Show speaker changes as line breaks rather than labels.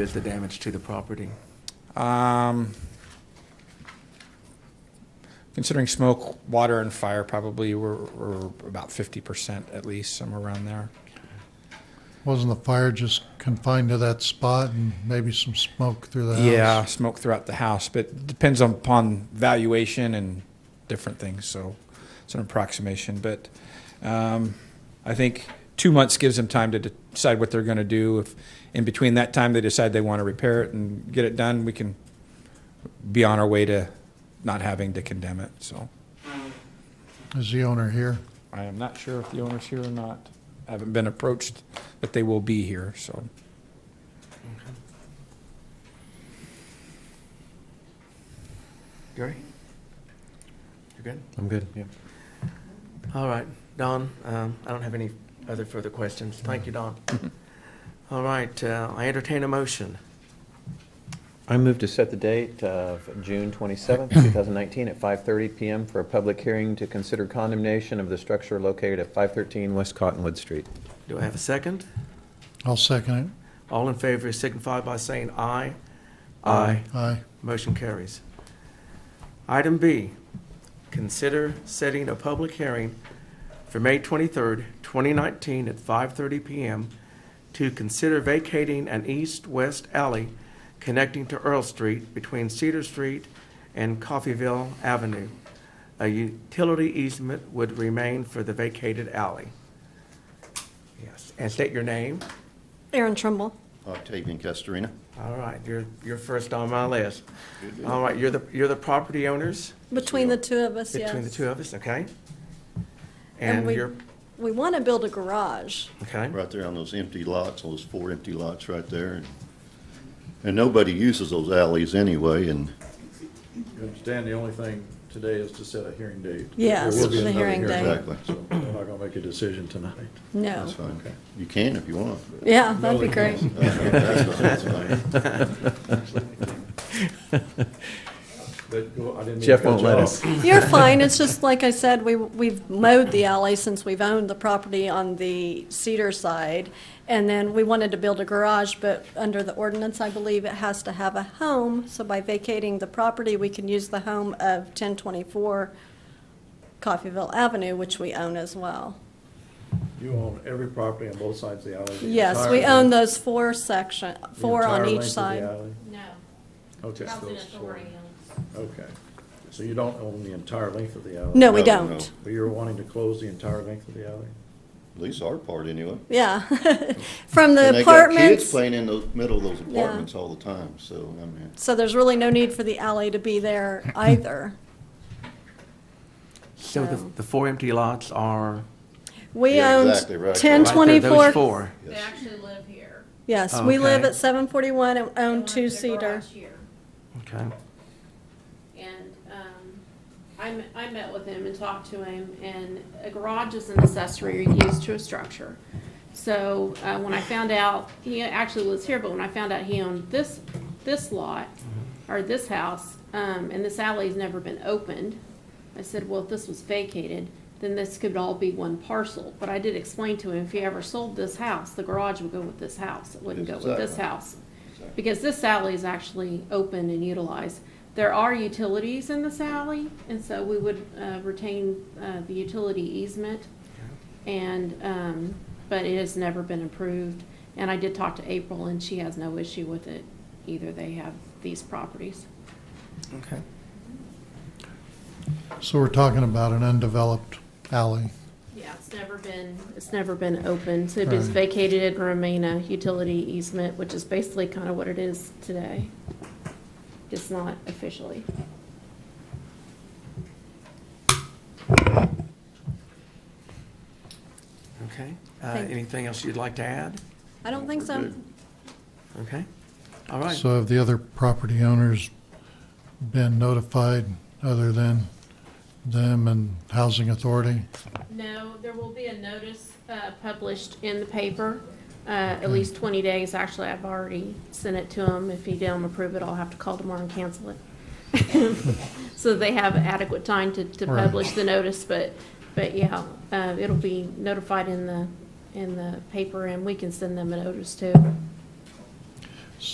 is the damage to the property?
Um, considering smoke, water, and fire, probably we're, we're about fifty percent at least, somewhere around there.
Wasn't the fire just confined to that spot and maybe some smoke through the house?
Yeah, smoke throughout the house, but depends on- upon valuation and different things, so it's an approximation, but um, I think two months gives them time to decide what they're gonna do. If in between that time they decide they wanna repair it and get it done, we can be on our way to not having to condemn it, so.
Is the owner here?
I am not sure if the owner's here or not. I Haven't been approached, but they will be here, so.
Gary? You good?
I'm good. Yeah.
All right, Don, um, I don't have any other further questions. Thank you, Don. All right, uh, I entertain a motion.
I move to set the date of June 27th, 2019, at 5:30 PM for a public hearing to consider condemnation of the structure located at 513 West Cottonwood Street.
Do I have a second?
I'll second
All in favor signify by saying aye.
Aye.
it. Aye.
Motion carries. Item B, consider setting a public hearing for May 23rd, 2019 at 5:30 PM to consider vacating an east-west alley connecting to Earl Street between Cedar Street and Coffeyville Avenue. A utility easement would remain for the vacated alley. Yes, and state your name.
Aaron Trimble.
Octavian Castorina.
All right, you're, you're first on my list. All right, you're the, you're the property owners
Between the two of us, yes.
between the two of us, okay?
And
And
we-
you're,
We want to build a garage.
okay,
Right there on those empty lots, those four empty lots right there. and- And nobody uses those alleys anyway, and
You understand, the only thing today is to set a hearing date.
Yes,
There will be
the
another
hearing date.
Exactly.
So we're not gonna make a decision tonight.
No.
that's fine. You can if you want.
Yeah, that'd be great.
That's fine.
But, well, I didn't mean to
Jeff
cut
won't
you
let
off.
us.
You're fine. It's just, like I said, we, we've mowed the alley since we've owned the property on the Cedar side. And then we wanted to build a garage, but under the ordinance, I believe it has to have a home. So by vacating the property, we can use the home of ten twenty-four Coffeyville Avenue, which we own as well.
You own every property on both sides of the alley. the
Yes, we
entire-
own those four section,
the
four on each
entire length of the
side.
alley?
No,
Okay.
housing
those four.
authority owns.
Okay. So you don't own the entire length of the alley?
No, we
No, no.
don't.
But you're wanting to close the entire length of the alley?
At least our part anyway.
Yeah. From
And
the
they got kids
apartments.
playing in the middle of those apartments all the time, so, I mean,
So there's really no need for the alley to be there either.
so the,
So-
the four empty lots are,
We
Yeah,
owned
exactly, right.
ten
right there, those
twenty-four.
four.
They
yes.
actually live here.
Yes, we live
Okay.
at seven forty-one and
They
own
live in
two
the
seater.
garage here.
Okay,
And um, I met- I met with him and talked to him, and a garage is an accessory used to a structure. So uh, when I found out, he actually lives here, but when I found out he owned this, this lot, or this house, um, and this alley's never been opened, I said, well, if this was vacated, then this could all be one parcel. But I did explain to him, if he ever sold this house, the garage would go with this house, it wouldn't go with this
Exactly.
house. Because this alley is actually open and utilized. There are utilities in this alley, and so we would uh, retain uh, the utility easement. And, um, but it has never been approved. And I did talk to April, and she has no issue with it either. They have these properties.
okay.
So we're talking about an undeveloped alley.
Yeah, it's never been, it's never been open. So it is
Right.
vacated and remain a utility easement, which is basically kind of what it is today. It's not officially.
Okay, uh,
Thank you.
anything else you'd like to add?
I don't think so.
Okay, all right.
So have the other property owners been notified other than them and Housing Authority?
No, there will be a notice uh, published in the paper, uh, at least 20 days. Actually, I've already sent it to him. If he don't approve it, I'll have to call tomorrow and cancel it. So they have adequate time to to
Right.
publish the notice, but, but yeah, um, uh, it'll be notified in the, in the paper, and we can send them a notice too.